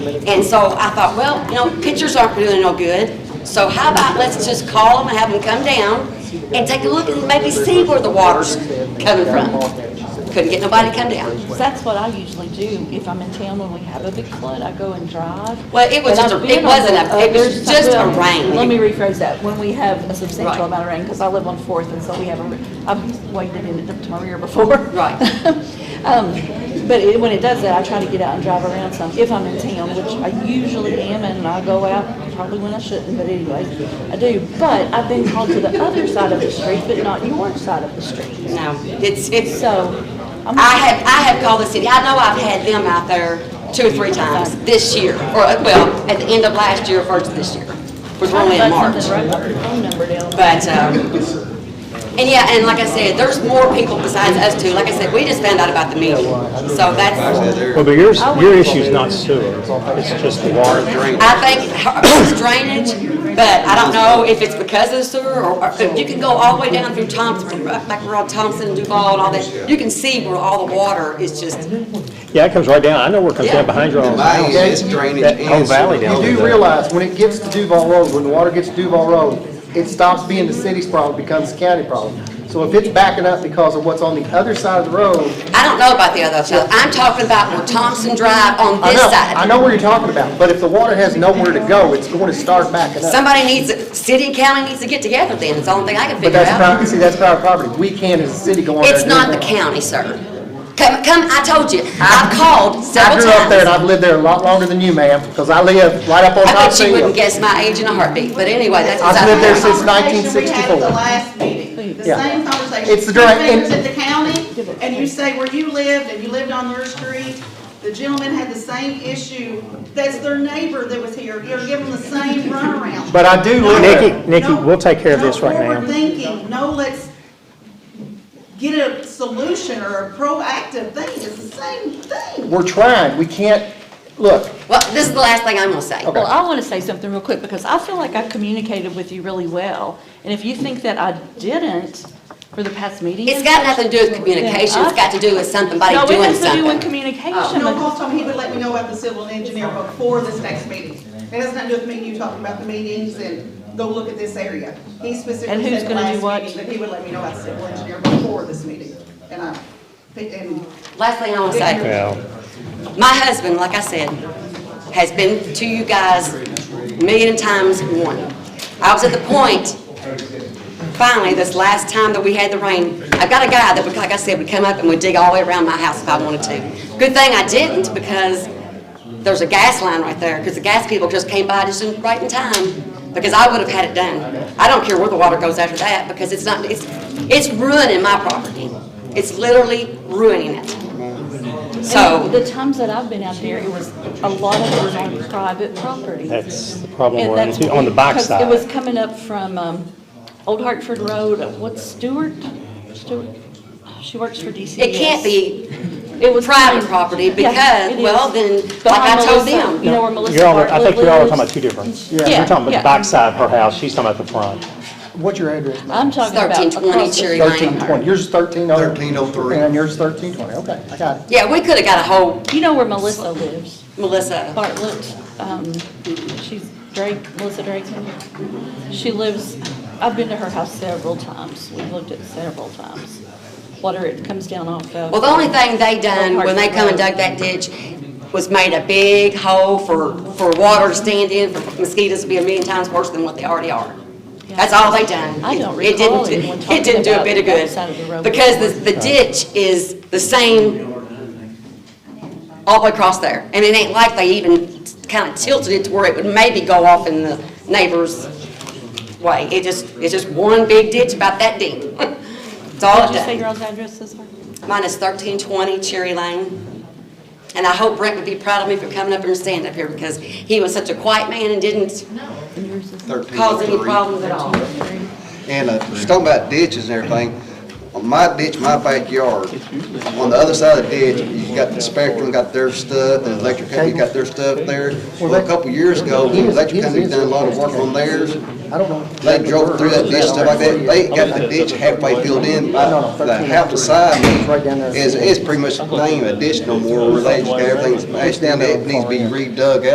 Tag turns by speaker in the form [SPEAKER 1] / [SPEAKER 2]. [SPEAKER 1] And so I thought, well, you know, pictures aren't doing no good, so how about let's just call them and have them come down and take a look and maybe see where the water's coming from. Couldn't get nobody to come down.
[SPEAKER 2] That's what I usually do if I'm in town when we have a big flood. I go and drive.
[SPEAKER 1] Well, it was
[SPEAKER 2] But
[SPEAKER 1] just a-
[SPEAKER 2] I've been
[SPEAKER 1] it wasn't
[SPEAKER 2] on-
[SPEAKER 1] a- it was
[SPEAKER 2] there's-
[SPEAKER 1] just a
[SPEAKER 2] well,
[SPEAKER 1] rain.
[SPEAKER 2] Let me rephrase that. When we have a
[SPEAKER 1] Right.
[SPEAKER 2] substantial amount of rain, because I live on Fourth, and so we have a, I've waded in it up to my rear before.
[SPEAKER 1] Right.
[SPEAKER 2] Um, But it- when it does that, I try to get out and drive around some, if I'm in town, which I usually am, and I go out probably when I shouldn't, but anyways, I do. But I've been called to the other side of the street, but not your side of the street.
[SPEAKER 1] No, it's, it's,
[SPEAKER 2] So I'm
[SPEAKER 1] I have, I have called the city, I know I've had them out there two or three times this year, or, well, at the end of last year, first of this year, which we're
[SPEAKER 2] trying
[SPEAKER 1] only
[SPEAKER 2] to
[SPEAKER 1] in
[SPEAKER 2] find
[SPEAKER 1] March.
[SPEAKER 2] something right off your phone number down.
[SPEAKER 1] But, um, and yeah, and like I said, there's more people besides us two. Like I said, we just found out about the meeting. So that's,
[SPEAKER 3] Well, but yours, your issue's not sewer, it's just the water drain.
[SPEAKER 1] I think it's drainage, but I don't know if it's because of the sewer or, or if you can go all the way down through Thompson, right back around Thompson, Duval and all that. You can see where all the water is just,
[SPEAKER 3] Yeah, it comes right down, I know where it comes down behind your own
[SPEAKER 4] Mine
[SPEAKER 3] house.
[SPEAKER 4] is drainage
[SPEAKER 3] That whole
[SPEAKER 4] and
[SPEAKER 3] valley
[SPEAKER 4] sewer.
[SPEAKER 3] down
[SPEAKER 5] You
[SPEAKER 3] there.
[SPEAKER 5] do realize, when it gets to Duval Road, when the water gets to Duval Road, it stops being the city's problem, becomes the county problem. So if it's backing up because of what's on the other side of the road,
[SPEAKER 1] I don't know about the other side. I'm talking about where Thompson Drive on
[SPEAKER 5] I
[SPEAKER 1] this
[SPEAKER 5] know,
[SPEAKER 1] side.
[SPEAKER 5] I know where you're talking about, but if the water has nowhere to go, it's going to start backing up.
[SPEAKER 1] Somebody needs, city and county needs to get together then. It's the only thing I can
[SPEAKER 5] But
[SPEAKER 1] figure
[SPEAKER 5] that's
[SPEAKER 1] out.
[SPEAKER 5] private, see, that's private property. We can as a city go on there.
[SPEAKER 1] It's
[SPEAKER 5] and do
[SPEAKER 1] not the
[SPEAKER 5] that.
[SPEAKER 1] county, sir. Come, come, I told you, I've called
[SPEAKER 5] I
[SPEAKER 1] several
[SPEAKER 5] grew up there and
[SPEAKER 1] times.
[SPEAKER 5] I've lived there a lot longer than you, ma'am, because I live right up on
[SPEAKER 1] I
[SPEAKER 5] top of
[SPEAKER 1] bet you wouldn't
[SPEAKER 5] Hill.
[SPEAKER 1] guess my age in a heartbeat, but anyway, that's.
[SPEAKER 5] I've lived there since
[SPEAKER 6] Conversation we
[SPEAKER 5] 1964.
[SPEAKER 6] had at the last meeting, the
[SPEAKER 5] Yeah.
[SPEAKER 6] same conversation.
[SPEAKER 5] It's the direct-
[SPEAKER 6] You was at the county, and you say where you lived, and you lived on your street, the gentleman had the same issue, that's their neighbor that was here, you're giving the same runaround.
[SPEAKER 5] But I do live there.
[SPEAKER 3] Nikki, Nikki, we'll take care of this right
[SPEAKER 6] No
[SPEAKER 3] now.
[SPEAKER 6] forward thinking, no, let's get a solution or a proactive thing, it's the same thing.
[SPEAKER 5] We're trying. We can't, look,
[SPEAKER 1] Well, this is the last thing I'm gonna say.
[SPEAKER 5] Okay.
[SPEAKER 2] Well, I want to say something real quick because I feel like I communicated with you really well. And if you think that I didn't for the past meeting.
[SPEAKER 1] It's got nothing to do with communication, it's got to do with something, somebody
[SPEAKER 2] No, it
[SPEAKER 1] doing
[SPEAKER 2] has to do with
[SPEAKER 1] something. Oh,
[SPEAKER 2] communication.
[SPEAKER 6] You know,
[SPEAKER 2] because-
[SPEAKER 6] Paul told me Uh, he would let me know about the civil engineer before this next meeting. It has nothing to do with me and you talking about the meetings and go look at this area. He
[SPEAKER 2] And
[SPEAKER 6] specifically
[SPEAKER 2] who's
[SPEAKER 6] said the
[SPEAKER 2] gonna do what?
[SPEAKER 6] last meeting that he would let me know about the civil engineer before this meeting. And I, and
[SPEAKER 1] Last thing I wanna say,
[SPEAKER 3] Well,
[SPEAKER 1] my husband, like I said, has been to you guys a million times one. I was at the point finally, this last time that we had the rain, I've got a guy that, would, like I said, would come up and would dig all the way around my house if I wanted to. Good thing I didn't because there's a gas line right there, because the gas people just came by just in, right in time, because I would have had it done. I don't care where the water goes after that, because it's not, it's, it's ruining my property. It's literally ruining it.
[SPEAKER 2] And
[SPEAKER 1] So,
[SPEAKER 2] the times that I've been out there, it was, a lot of it was on private property.
[SPEAKER 3] that's the problem,
[SPEAKER 2] And
[SPEAKER 3] we're
[SPEAKER 2] that's
[SPEAKER 3] on, on the back
[SPEAKER 2] because It was
[SPEAKER 3] side.
[SPEAKER 2] coming up from um, Old Hartford Road, uh, what's Stewart? Stewart, she works for DCS.
[SPEAKER 1] it can't be
[SPEAKER 2] It was
[SPEAKER 1] private
[SPEAKER 2] coming-
[SPEAKER 1] property
[SPEAKER 2] Yeah,
[SPEAKER 1] because,
[SPEAKER 2] it is.
[SPEAKER 1] well, then,
[SPEAKER 2] Behind
[SPEAKER 1] like I told
[SPEAKER 2] Melissa,
[SPEAKER 1] them,
[SPEAKER 2] You know where Melissa
[SPEAKER 3] You're all,
[SPEAKER 2] Bartlett
[SPEAKER 3] I think you're all talking about
[SPEAKER 2] lives?
[SPEAKER 3] two different,
[SPEAKER 2] Yeah,
[SPEAKER 3] you're talking about the
[SPEAKER 2] yeah.
[SPEAKER 3] back side of her house, she's talking about the front.
[SPEAKER 5] what's your address, ma'am?
[SPEAKER 2] I'm talking about.
[SPEAKER 1] 1320
[SPEAKER 2] across the-
[SPEAKER 1] Cherry Lane.
[SPEAKER 5] Thirteen twenty, yours is thirteen oh.
[SPEAKER 4] 1303.
[SPEAKER 5] And yours is thirteen twenty, okay, I got it.
[SPEAKER 1] yeah, we could have got a whole
[SPEAKER 2] You know where Melissa lives,
[SPEAKER 1] Melissa.
[SPEAKER 2] Bartlett, um, she's Drake, Melissa Drake. She lives, I've been to her house several times, we've looked at several times. Water, it comes down off of.
[SPEAKER 1] Well, the only thing they done when they come and dug that ditch was made a big hole for, for water to stand in, for mosquitoes to be a million times worse than what they already are. That's all they done.
[SPEAKER 2] I don't
[SPEAKER 1] It didn't
[SPEAKER 2] recall
[SPEAKER 1] do-
[SPEAKER 2] anyone
[SPEAKER 1] It didn't do a bit of
[SPEAKER 2] talking about that side of the
[SPEAKER 1] good,
[SPEAKER 2] road.
[SPEAKER 1] because the, the ditch is the same all the way across there. And it ain't like they even kinda tilted it to where it would maybe go off in the neighbor's way. It just, it's just one big ditch about that deep. That's all it
[SPEAKER 2] Did
[SPEAKER 1] does.
[SPEAKER 2] you say your own address is?
[SPEAKER 1] Mine is thirteen twenty Cherry Lane. And I hope Brent would be proud of me for coming up here and standing up here because he was such a quiet man and didn't cause any
[SPEAKER 4] 1303.
[SPEAKER 1] problems at all.
[SPEAKER 4] And uh, just talking about ditches and everything, on my ditch, my backyard, on the other side of the ditch, you got the Spectrum, got their stuff, the electric company got their stuff there. Well, a couple years ago, the electric company done a lot of work on theirs.
[SPEAKER 5] I don't know.
[SPEAKER 4] They drove through that ditch, stuff like that, they got the ditch halfway filled in, but the half the side is, is pretty much lame, a ditch no more, related to everything's smashed down, it needs to be redug out.